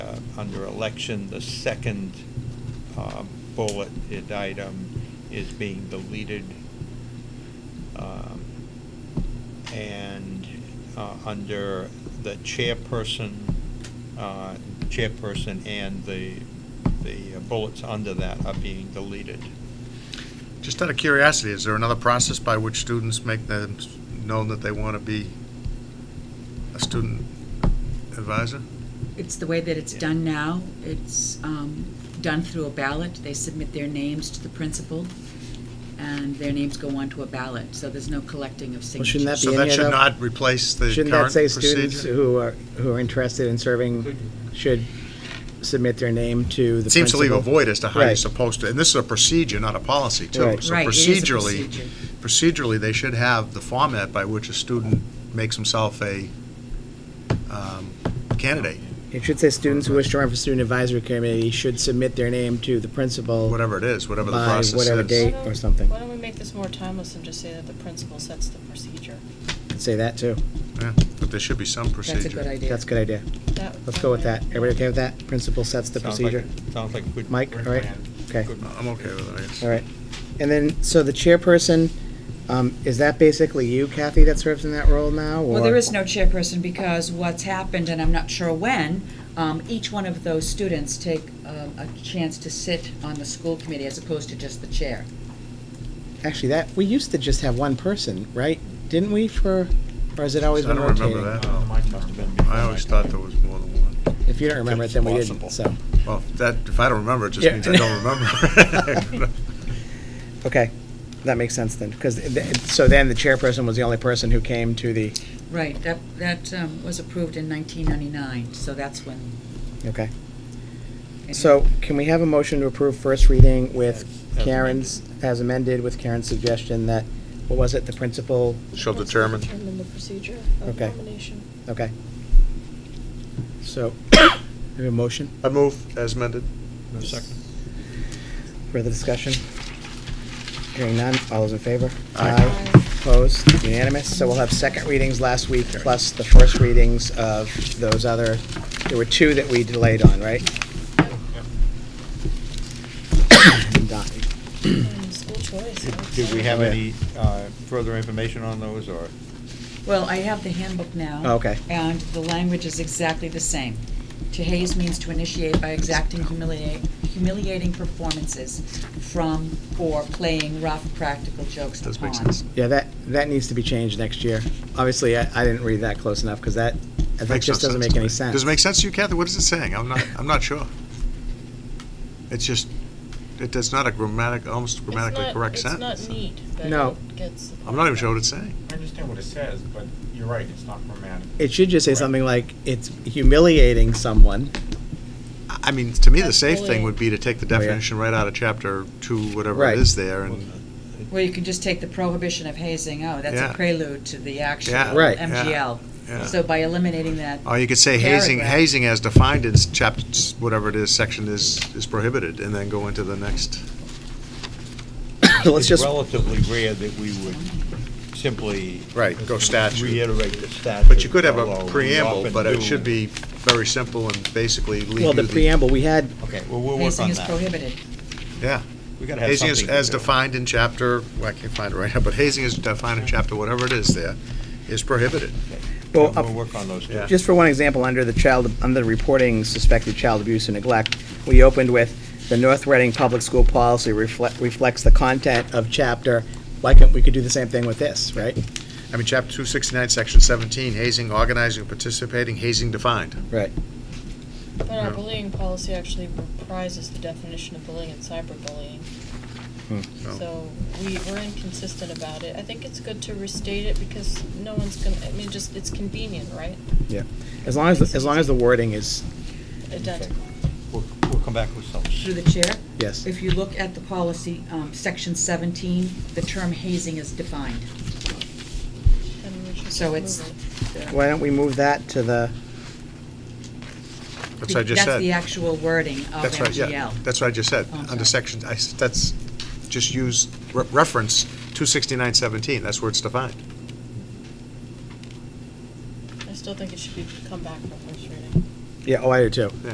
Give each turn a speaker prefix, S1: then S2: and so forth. S1: uh, under election, the second uh, bulleted item is being deleted. Um, And uh, under the chairperson, uh, chairperson and the, the bullets under that are being deleted.
S2: Just out of curiosity, is there another process by which students make them s- known that they want to be a student advisor?
S3: It's the way that it's
S1: Yeah.
S3: done now. It's um, done through a ballot. They submit their names to the principal, and their names go onto a ballot, so there's no collecting of
S4: Well,
S3: signatures.
S4: shouldn't that
S2: So
S4: be
S2: that
S4: any
S2: should
S4: of the,
S2: not replace the
S4: shouldn't that
S2: current
S4: say students
S2: procedure?
S4: who are, who are interested in serving should submit their name to the principal?
S2: It Seems to leave a void as to how you're
S4: Right.
S2: supposed to, and this is a procedure, not a policy, too.
S4: Right.
S2: So
S3: Right, it is a
S2: procedurally,
S3: procedure.
S2: procedurally, they should have the format by which a student makes himself a um, candidate,
S4: It should say students who wish to run for student advisory committee should submit their name to the principal.
S2: whatever it is, whatever the
S4: By
S2: process is.
S4: whatever date.
S5: Why don't-
S4: or something.
S5: Why don't we make this more timeless and just say that the principal sets the procedure?
S4: Say that, too.
S2: Yeah, But there should be some procedure.
S3: That's a good idea.
S4: That's a good idea.
S5: That-
S4: Let's go with that. Everybody okay with that? Principal sets the
S1: Sounds like-
S4: procedure?
S1: Sounds like a good.
S4: Mike, all right? Okay,
S1: Good
S2: I'm okay with it, I guess.
S4: all right. And then, so the chairperson, um, is that basically you, Kathy, that serves in that role now?
S3: Well,
S4: or-
S3: there is no chairperson because what's happened, and I'm not sure when, um, each one of those students take um, a chance to sit on the school committee as opposed to just the chair.
S4: Actually, that, we used to just have one person, right? Didn't we for, or has it always
S2: I
S4: been
S2: don't
S4: rotating?
S2: remember that.
S1: Oh, mine must have been before
S2: Uh, I always
S1: my
S2: thought
S1: time.
S2: there was more than one.
S4: If you don't remember it, then we didn't,
S1: Possible.
S4: so,
S2: Well, if that, if I don't remember, it just
S4: Yeah.
S2: means I don't remember.
S4: okay. That makes sense then, because, so then the chairperson was the only person who came to the,
S3: Right, that, that um, was approved in 1999, so that's when.
S4: okay.
S3: it
S4: So can we have a motion to approve first reading with
S1: As- as
S4: Karen's, as amended, with Karen's suggestion that, what was it, the principal,
S2: Shall
S5: Let's
S2: determine.
S5: Determine the procedure of
S4: Okay.
S5: nomination.
S4: okay. So, we have a motion,
S2: I move as amended.
S1: No second.
S4: further discussion? Hearing none, all those in favor?
S2: Aye.
S4: Opposed, unanimous, so we'll have second readings last week, plus the first readings of those other, there were two that we delayed on, right? Done.
S5: And School choice. I would
S1: Did we
S5: say.
S1: have
S4: Yeah.
S1: any uh, further information on those, or?
S3: Well, I have the handbook now.
S4: Oh, okay.
S3: And the language is exactly the same. To haze means to initiate by exacting humiliating, humiliating performances from or playing rough practical jokes upon.
S2: Does make sense.
S4: Yeah, that, that needs to be changed next year. Obviously, I, I didn't read that close enough, because that, that
S2: Makes no
S4: just doesn't
S2: sense
S4: make
S2: to
S4: any
S2: me.
S4: sense.
S2: Does it make sense to you, Kathy? What is it saying? I'm not, I'm not sure. It's just, it does not a grammatic, almost
S5: It's
S2: grammatically
S5: not-
S2: correct sentence.
S5: It's not neat, but
S4: No.
S5: it gets.
S2: I'm not even sure what it's saying.
S6: I understand what it says, but you're right, it's not grammatic.
S4: It should just say
S6: Right.
S4: something like, it's humiliating someone.
S2: I I mean, to me, the
S5: That's
S2: safe thing would be to take the
S4: Oh, yeah.
S2: definition right out of chapter two, whatever
S4: Right.
S2: it is there, and
S3: Well, you can just take the prohibition of hazing out. That's
S2: Yeah.
S3: a prelude to the actual
S2: Yeah.
S4: Right.
S3: MGL.
S2: yeah.
S3: So by eliminating that,
S2: Or you could say hazing,
S3: Paragraph.
S2: hazing as defined in s- chapter, s- whatever it is, section is, is prohibited, and then go into the next.
S4: Let's
S1: It's
S4: just,
S1: relatively rare that we would simply.
S2: Right, go statute.
S1: Reiterate the statute.
S2: But you could have
S1: although
S2: a
S1: we
S2: preamble,
S1: often
S2: but it
S1: do.
S2: should be very simple and basically leave you.
S4: well, the preamble, we had,
S1: Okay, well, we'll work
S3: hazing
S1: on
S3: is
S1: that.
S3: prohibited.
S2: Yeah.
S1: We gotta have
S2: Hazing is
S1: something.
S2: as
S1: to do.
S2: defined in chapter, well, I can't find it right now, but hazing is defined in chapter, whatever it is there, is prohibited.
S4: well,
S1: We'll
S4: uh,
S1: work on those,
S2: Yeah.
S1: too.
S4: just for one example, under the child, under reporting suspected child abuse and neglect, we opened with, the North Reading Public School Policy reflect, reflects the content of chapter, why can't, we could do the same thing with this, right?
S2: I mean, chapter two sixty-nine, section seventeen, hazing, organizing, participating, hazing defined.
S4: Right.
S5: But
S2: Yeah.
S5: our bullying policy actually reprises the definition of bullying and cyberbullying.
S4: Hmm.
S2: so-
S5: So we, we're inconsistent about it. I think it's good to restate it because no one's gonna, I mean, just, it's convenient, right?
S4: Yeah, as long as, as long as the wording is,
S5: Identical.
S1: We'll, we'll come back with some.
S3: Through the chair,
S4: yes.
S3: if you look at the policy, um, section 17, the term hazing is defined.
S5: And we should just
S3: So
S5: move
S3: it's-
S5: it.
S4: Why don't we move that to the,
S2: That's what I just
S3: That's the
S2: said.
S3: actual wording of
S2: That's right, yeah.
S3: MGL.
S2: That's what I just said.
S3: Oh, I'm
S2: Under
S3: sorry.
S2: section, I s that's, just use, re- reference two sixty-nine, seventeen, that's where it's defined.
S5: I still think it should be, come back for first reading.
S4: yeah, oh, I do too.